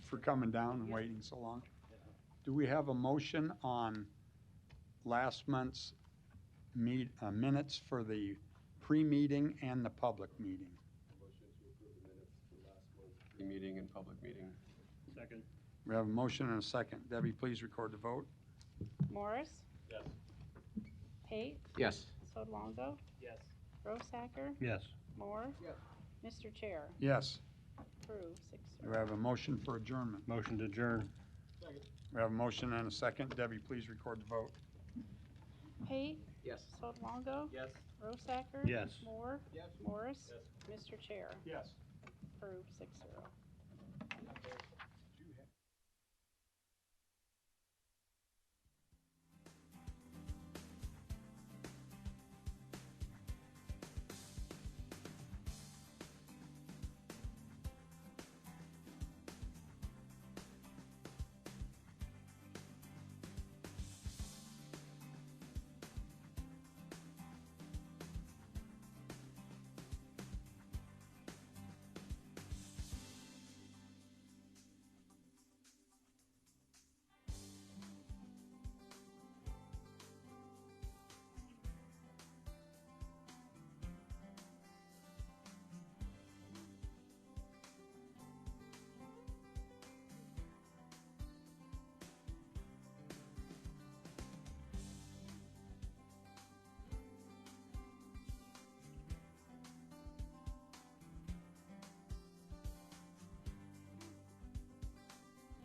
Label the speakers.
Speaker 1: for coming down and waiting so long. Do we have a motion on last month's meet, uh, minutes for the pre-meeting and the public meeting?
Speaker 2: Motion to approve the minutes for last month's meeting and public meeting.
Speaker 3: Second.
Speaker 1: We have a motion and a second. Debbie, please record the vote.
Speaker 4: Morris?
Speaker 3: Yes.
Speaker 4: Pate?
Speaker 2: Yes.
Speaker 4: Sodolongo?
Speaker 3: Yes.
Speaker 4: Rosacker?
Speaker 3: Yes.
Speaker 4: Moore?
Speaker 2: Yes.
Speaker 4: Mr. Chair,
Speaker 1: Yes,
Speaker 4: approve six
Speaker 1: we
Speaker 4: zero.
Speaker 1: have a motion for adjournment.
Speaker 3: Motion to adjourn.
Speaker 1: We have a motion and a second. Debbie, please record the vote.
Speaker 4: Pate?
Speaker 2: Yes.
Speaker 4: Sodolongo?
Speaker 2: Yes.
Speaker 4: Rosacker?
Speaker 3: Yes.
Speaker 4: Moore?
Speaker 2: Yes.
Speaker 4: Morris? Mr. Chair,
Speaker 1: Yes.
Speaker 4: approve six zero.